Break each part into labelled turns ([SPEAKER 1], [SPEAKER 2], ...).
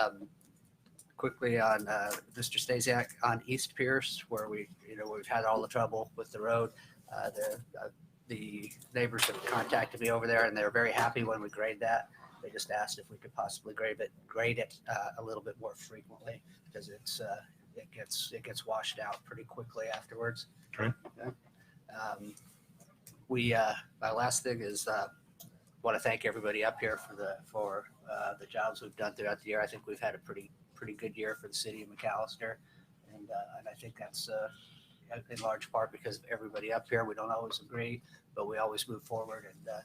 [SPEAKER 1] Um, Quickly on, uh, Mr. Stasiak, on East Pierce, where we, you know, we've had all the trouble with the road. uh, The uh, the neighbors have contacted me over there and they're very happy when we grade that. They just asked if we could possibly grade it, grade it uh, a little bit more frequently because it's, uh, it gets, it gets washed out pretty quickly afterwards.
[SPEAKER 2] Okay.
[SPEAKER 1] Yeah. Um, We, uh, my last thing is uh, want to thank everybody up here for the, for uh, the jobs we've done throughout the year. I think we've had a pretty, pretty good year for the city of McAllister. And, uh, and I think that's uh, in large part because of everybody up here. We don't always agree, but we always move forward. And uh,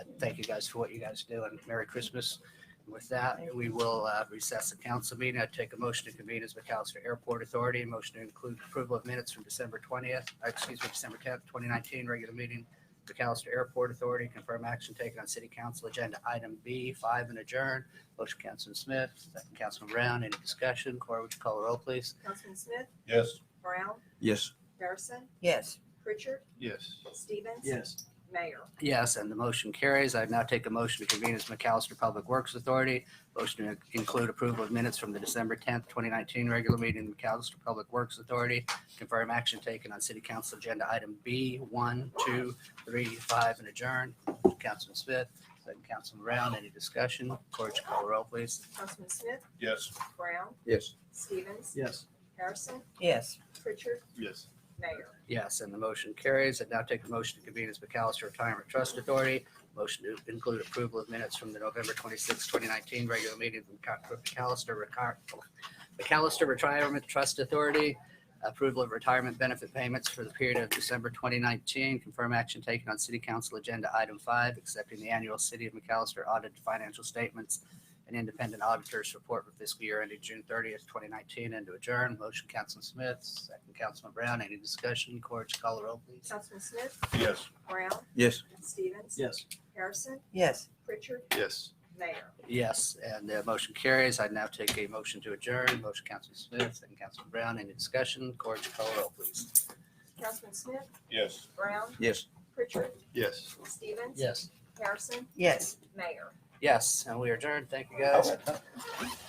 [SPEAKER 1] I thank you guys for what you guys do and Merry Christmas. With that, we will uh, recess the council meeting. I take a motion to convene as McAllister Airport Authority. Motion to include approval of minutes from December 20th, uh, excuse me, December 10th, 2019, regular meeting McAllister Airport Authority, confirm action taken on city council agenda item B, five and adjourn. Motion Councilman Smith, second Councilman Brown, any discussion? Cora, would you call the roll, please?
[SPEAKER 3] Councilman Smith,
[SPEAKER 2] Yes.
[SPEAKER 3] Brown,
[SPEAKER 4] Yes.
[SPEAKER 3] Harrison,
[SPEAKER 5] Yes.
[SPEAKER 3] Pritchard,
[SPEAKER 2] Yes.
[SPEAKER 3] Stevens.
[SPEAKER 4] Yes.
[SPEAKER 3] Mayor.
[SPEAKER 1] Yes, and the motion carries. I now take a motion to convene as McAllister Public Works Authority. Motion to include approval of minutes from the December 10th, 2019 regular meeting of McAllister Public Works Authority. Confirm action taken on city council agenda item B, one, two, three, five, and adjourn. Councilman Smith, second Councilman Brown, any discussion? Corriged call roll, please.
[SPEAKER 3] Councilman Smith,
[SPEAKER 2] Yes.
[SPEAKER 3] Brown,
[SPEAKER 4] Yes.
[SPEAKER 3] Stevens,
[SPEAKER 4] Yes.
[SPEAKER 3] Harrison,
[SPEAKER 5] Yes.
[SPEAKER 3] Pritchard,
[SPEAKER 2] Yes.
[SPEAKER 3] Mayor.
[SPEAKER 1] Yes, and the motion carries. I now take a motion to convene as McAllister Retirement Trust Authority. Motion to include approval of minutes from the November 26, 2019 regular meeting of McAllister Recar- McAllister Retirement Trust Authority. Approval of retirement benefit payments for the period of December 2019. Confirm action taken on City Council Agenda Item 5, accepting the annual City of McAllister audited financial statements and independent auditors report for fiscal year ended June 30th, 2019, and to adjourn. Motion, Councilman Smith, second, Councilman Brown. Any discussion? Corge, call the roll, please.
[SPEAKER 3] Councilman Smith,
[SPEAKER 2] Yes.
[SPEAKER 3] Brown,
[SPEAKER 4] Yes.
[SPEAKER 3] Stevens.
[SPEAKER 4] Yes.
[SPEAKER 3] Harrison,
[SPEAKER 5] Yes.
[SPEAKER 3] Pritchard,
[SPEAKER 2] Yes.
[SPEAKER 3] Mayor.
[SPEAKER 1] Yes, and the motion carries. I now take a motion to adjourn. Motion, Councilman Smith, second, Councilman Brown. Any discussion? Corge, call the roll, please.
[SPEAKER 3] Councilman Smith,
[SPEAKER 2] Yes.
[SPEAKER 3] Brown,
[SPEAKER 4] Yes.
[SPEAKER 3] Pritchard,
[SPEAKER 2] Yes.
[SPEAKER 3] Stevens.
[SPEAKER 1] Yes.
[SPEAKER 3] Harrison,
[SPEAKER 5] Yes.
[SPEAKER 3] Mayor.
[SPEAKER 1] Yes, and we are adjourned. Thank you, guys.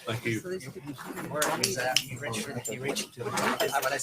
[SPEAKER 2] Thank you.
[SPEAKER 5] So these could be-
[SPEAKER 1] Where is that? You reached, you reached. I- When I